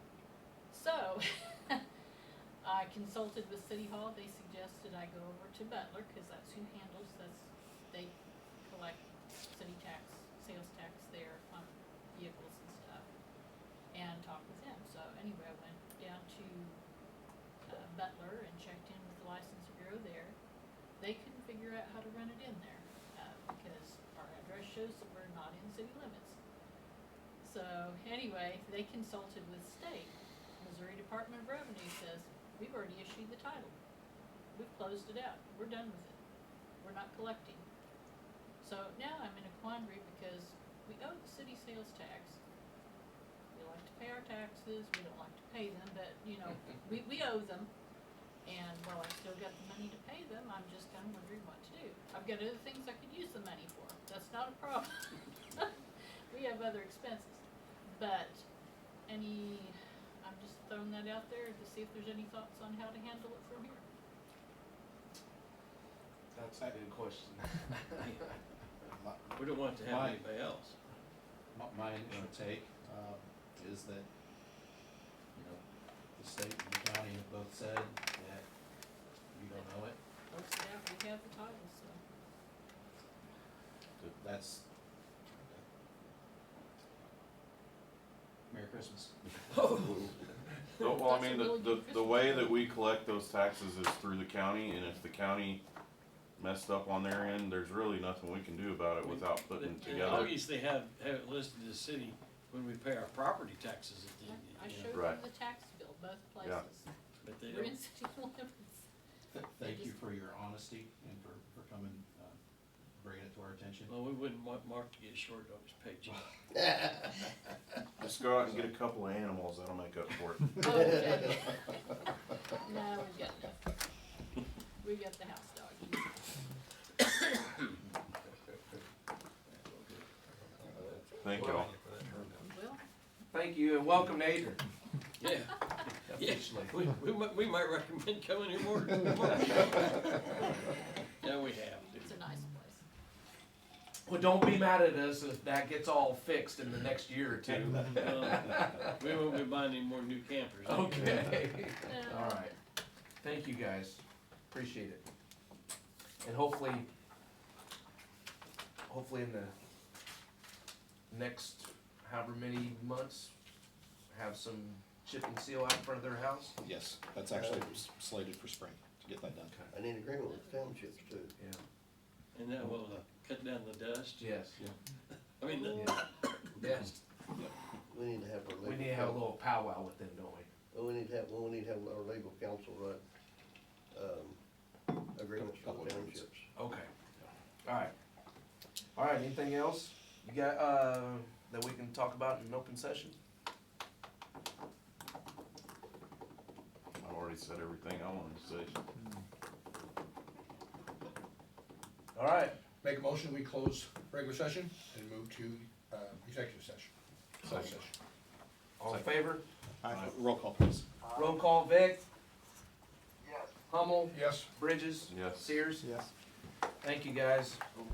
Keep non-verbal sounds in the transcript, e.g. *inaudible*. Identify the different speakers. Speaker 1: *laughs* I consulted with City Hall, they suggested I go over to Butler, cause that's who handles this, they collect city tax, sales tax there on vehicles and stuff. And talk with them, so anyway, I went down to, uh, Butler and checked in with the license bureau there. They couldn't figure out how to run it in there, uh, because our address shows that we're not in city limits. So anyway, they consulted with state. Missouri Department of Revenue says, we've already issued the title. We've closed it out. We're done with it. We're not collecting. So now I'm in a quandary because we owe the city sales tax. We like to pay our taxes. We don't like to pay them, but you know, we, we owe them. And while I've still got the money to pay them, I'm just kind of wondering what to do. I've got other things I could use the money for. That's not a problem. *laughs* we have other expenses. But any, I'm just throwing that out there to see if there's any thoughts on how to handle it from here.
Speaker 2: That's a good
Speaker 3: *laughs*
Speaker 2: question. My,
Speaker 4: We don't want it to
Speaker 2: Why?
Speaker 4: have anybody else.
Speaker 2: my- my uh, take, um, is that, you know, the state and the county have both said that you don't know it,
Speaker 1: Most of that, we have the title, so.
Speaker 2: but that's. Merry Christmas.
Speaker 5: No, well, I
Speaker 1: That's a
Speaker 5: mean, the,
Speaker 1: really good
Speaker 5: the, the
Speaker 1: Christmas
Speaker 5: way
Speaker 1: present.
Speaker 5: that we collect those taxes is through the county, and if the county messed up on their end, there's really nothing we can do about it without
Speaker 4: *laughs*
Speaker 5: putting
Speaker 4: They- they
Speaker 5: together.
Speaker 4: Obviously have, have it listed as city when we pay our property taxes at the,
Speaker 1: I- I
Speaker 4: end, you know,
Speaker 1: showed them
Speaker 5: Right.
Speaker 1: the tax bill, both
Speaker 5: Yeah.
Speaker 1: places.
Speaker 4: but they
Speaker 1: We're in
Speaker 4: don't,
Speaker 1: city *laughs* limits.
Speaker 2: Th- Thank you for your honesty and for, for coming, uh, bringing it to our attention.
Speaker 4: well, we wouldn't want Mark to get short on his paycheck.
Speaker 5: Just go out and get a couple of animals, that'll make up *laughs* for it.
Speaker 1: Oh, okay. *laughs* No, we've got nothing. We've got the house dog.
Speaker 5: Thank
Speaker 1: Well,
Speaker 5: y'all.
Speaker 6: Thank you and welcome to Adrian.
Speaker 4: Yeah, yes, we, we might, we might recommend coming here more, more. Yeah, we have to.
Speaker 1: it's a nice place.
Speaker 6: Well, don't be mad at us if that gets all fixed in the next year or *laughs* two.
Speaker 4: Um, We won't be buying any more new campers.
Speaker 6: Oh. Okay.
Speaker 1: No,
Speaker 6: All right. Thank you guys. Appreciate it. And hopefully, hopefully in the next however many months, have some chip and seal out in front of their house.
Speaker 3: Yes, that's actually s- slated for spring, to get that done.
Speaker 7: And in agreement with the townships too.
Speaker 6: Yeah.
Speaker 4: And that will uh, cut down the dust,
Speaker 6: Yes.
Speaker 4: I mean, the
Speaker 6: Yeah. Yes.
Speaker 7: We need to have our legal.
Speaker 6: We need to have a little powwow with them, don't we?
Speaker 7: coun- We need to have, well, we need to have our legal counsel run, um, agreements
Speaker 3: Couple
Speaker 7: for the
Speaker 3: agreements.
Speaker 7: townships.
Speaker 6: Okay. Alright. Alright, anything else you got, uh, that we can talk about in an open session?
Speaker 5: I already said everything I wanted to say.
Speaker 6: Alright,
Speaker 8: Make a motion, we close regular session and move to uh, executive session. Closed session.
Speaker 6: all in favor?
Speaker 3: Uh, Roll call, please.
Speaker 6: Roll call, Vic? Yes. Hummel,
Speaker 8: Yes?
Speaker 6: Bridges?
Speaker 5: Yes.
Speaker 6: Sears?
Speaker 3: Yes.
Speaker 6: Thank you, guys.